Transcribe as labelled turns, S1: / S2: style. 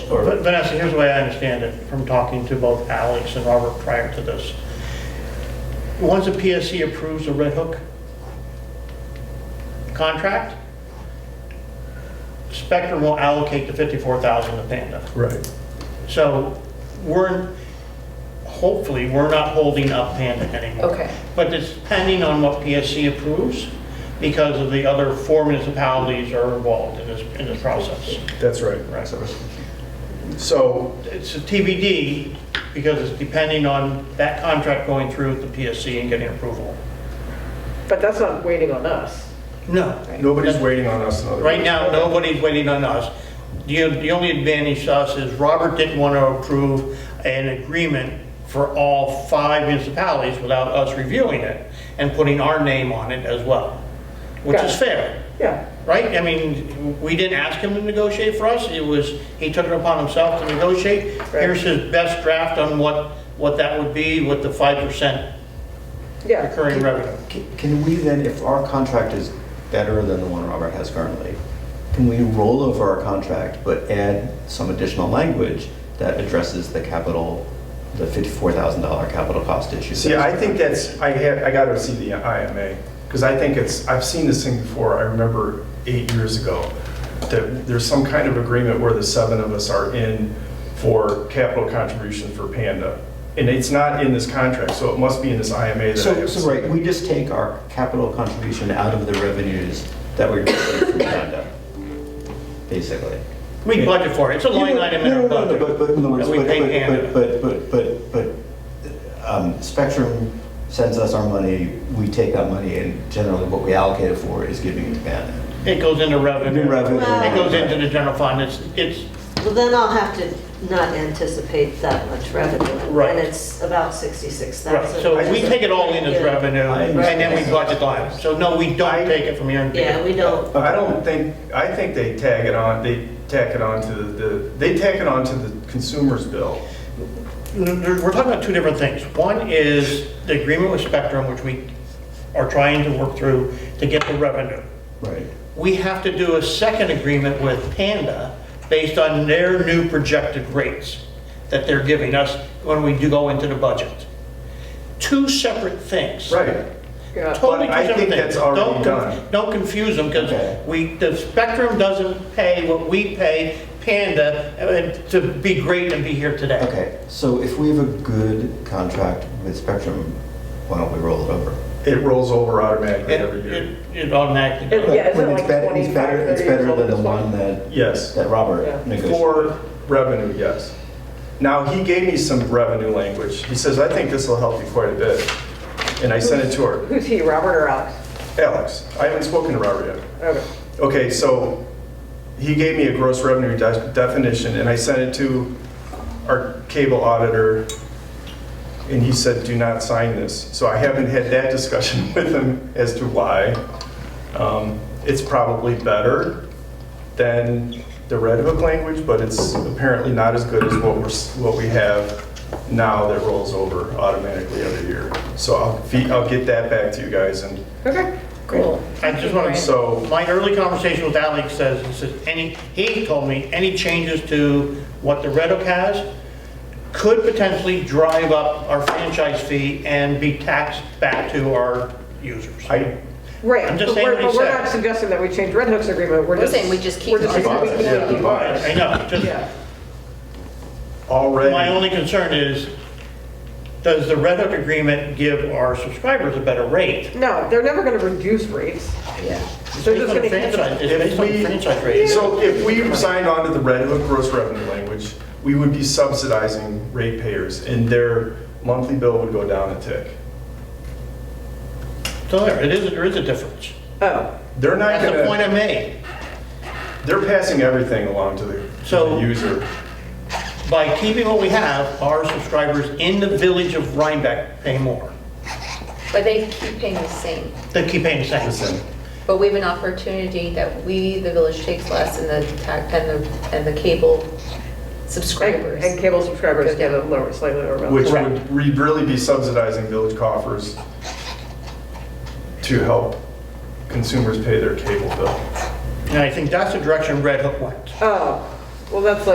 S1: Or-
S2: But Vanessa, here's the way I understand it, from talking to both Alex and Robert prior to this. Once the PSC approves the Red Hook contract, Spectrum will allocate the 54,000 to Panda.
S1: Right.
S2: So we're, hopefully, we're not holding up Panda anymore.
S3: Okay.
S2: But it's depending on what PSC approves because of the other four municipalities are involved in this, in this process.
S1: That's right.
S2: Right.
S1: So,
S2: It's a TBD because it's depending on that contract going through with the PSC and getting approval.
S4: But that's not waiting on us.
S2: No.
S1: nobody's waiting on us in other
S2: Right
S1: words.
S2: now, nobody's waiting on us. The, the only advantage to us is Robert didn't want to approve an agreement for all five municipalities without us reviewing it and putting our name on it as well, which is
S4: Gotcha.
S2: fair,
S4: Yeah,
S2: right? I mean, we didn't ask him to negotiate for us, it was, he took it upon himself to negotiate.
S4: Right.
S2: Here's his best draft on what, what that would be with the 5%
S4: yeah.
S2: recurring revenue.
S5: Can- Can we then, if our contract is better than the one Robert has currently, can we roll over our contract but add some additional language that addresses the capital, the $54,000 capital cost issue?
S1: See, I think that's, I had, I gotta see the IMA, because I think it's, I've seen this thing before, I remember eight years ago, that there's some kind of agreement where the seven of us are in for capital contribution for Panda. And it's not in this contract, so it must be in this IMA that I
S5: So,
S1: have.
S5: so right, we just take our capital contribution out of the revenues that we're receiving from Uganda, basically.
S2: We budget for it, it's a line item in
S5: No,
S2: our
S5: no,
S2: budget.
S5: no, no, But, but, in other words,
S2: that we
S5: but,
S2: pay Canada.
S5: but, but, but, but, but, um, Spectrum sends us our money, we take that money, and generally what we allocate it for is giving it to Uganda.
S2: It goes into revenue.
S5: New revenue.
S2: It goes into the general fund, it's, it's,
S6: Well, then I'll have to not anticipate that much revenue.
S2: Right.
S6: And it's about 66,000.
S2: right, so we take it all in as
S6: Yeah.
S2: revenue, and then we budget line. So no, we don't take it from here and
S6: Yeah, we don't,
S1: I don't think, I think they tag it on, they tack it on to the, they tack it on to the consumer's bill.
S2: We're talking about two different things. One is the agreement with Spectrum, which we are trying to work through to get the revenue.
S5: Right.
S2: We have to do a second agreement with Panda based on their new projected rates that they're giving us when we do go into the budget. Two separate things.
S1: Right.
S4: Yeah.
S2: Totally
S1: But I
S2: different
S1: think
S2: things.
S1: that's already
S2: Don't conf-
S1: done.
S2: Don't confuse them,
S5: Okay.
S2: because we, the Spectrum doesn't pay what we pay Panda uh, to be great and be here today.
S5: Okay, so if we have a good contract with Spectrum, why don't we roll it over?
S1: It rolls over automatically
S2: It,
S1: every year.
S2: it it automatically
S4: It-
S2: goes.
S4: Yeah, isn't
S5: When
S4: it
S5: it's
S4: like
S5: better- it's better-
S4: 25,
S5: It's better
S4: 30,
S5: than the
S4: something?
S5: one that,
S1: Yes.
S5: that
S4: Yeah.
S5: Robert negotiated.
S1: For revenue, yes. Now, he gave me some revenue language. He says, I think this will help you quite a bit. And I sent it to her.
S4: Who's he, Robert or Alex?
S1: Alex, I haven't spoken to Robert yet.
S4: Okay.
S1: Okay, so he gave me a gross revenue de- definition, and I sent it to our cable auditor, and he said, do not sign this. So I haven't had that discussion with him as to why. Um, It's probably better than the Red Hook language, but it's apparently not as good as what we're, s- what we have now that rolls over automatically every year. So I'll, fe- I'll get that back to you guys, and
S4: Okay, cool.
S2: I just want to,
S1: so
S2: my early conversation with Alex says, he says, any, he told me, any changes to what the Red Hook has could potentially drive up our franchise fee and be taxed back to our users.
S1: I,
S4: Right.
S2: I'm just
S4: but we're-
S2: saying what he
S4: But
S2: said.
S4: we're not suggesting that we change Red Hook's agreement, we're
S3: We're
S4: just.
S3: saying we just keep
S4: we're
S3: ours.
S4: saying we keep
S1: Yeah, keep
S4: ours.
S2: I know, just.
S4: Yeah.
S1: already.
S2: My only concern is, does the Red Hook agreement give our subscribers a better rate?
S4: No, they're never going to reduce rates.
S3: Yeah.
S2: It's
S4: They're
S2: based
S4: just
S2: on
S4: gonna keep the-
S2: franchise- It's
S1: If
S2: based on
S1: we-
S2: franchise rates.
S1: So if we signed on to the Red Hook gross revenue language, we would be subsidizing ratepayers, and their monthly bill would go down a tick.
S2: So there, it is, there is a difference.
S4: Oh,
S1: They're not
S2: That's the point I
S1: gonna,
S2: made.
S1: they're passing everything along to the to
S2: So-
S1: the user.
S2: By keeping what we have, our subscribers in the village of Rhinebeck pay more.
S3: But they keep paying the same.
S2: They keep paying the
S1: Listen,
S2: same.
S3: But we have an opportunity that we, the village, takes less and the tax, and the, and the cable
S4: and
S3: subscribers.
S4: and cable subscribers
S3: Go
S4: get a
S3: down.
S4: lower, slightly lower. amount.
S1: Which
S2: Correct.
S1: would re- really be subsidizing village coffers to help consumers pay their cable bill.
S2: And I think that's the direction Red Hook went.
S4: Oh, well, that's like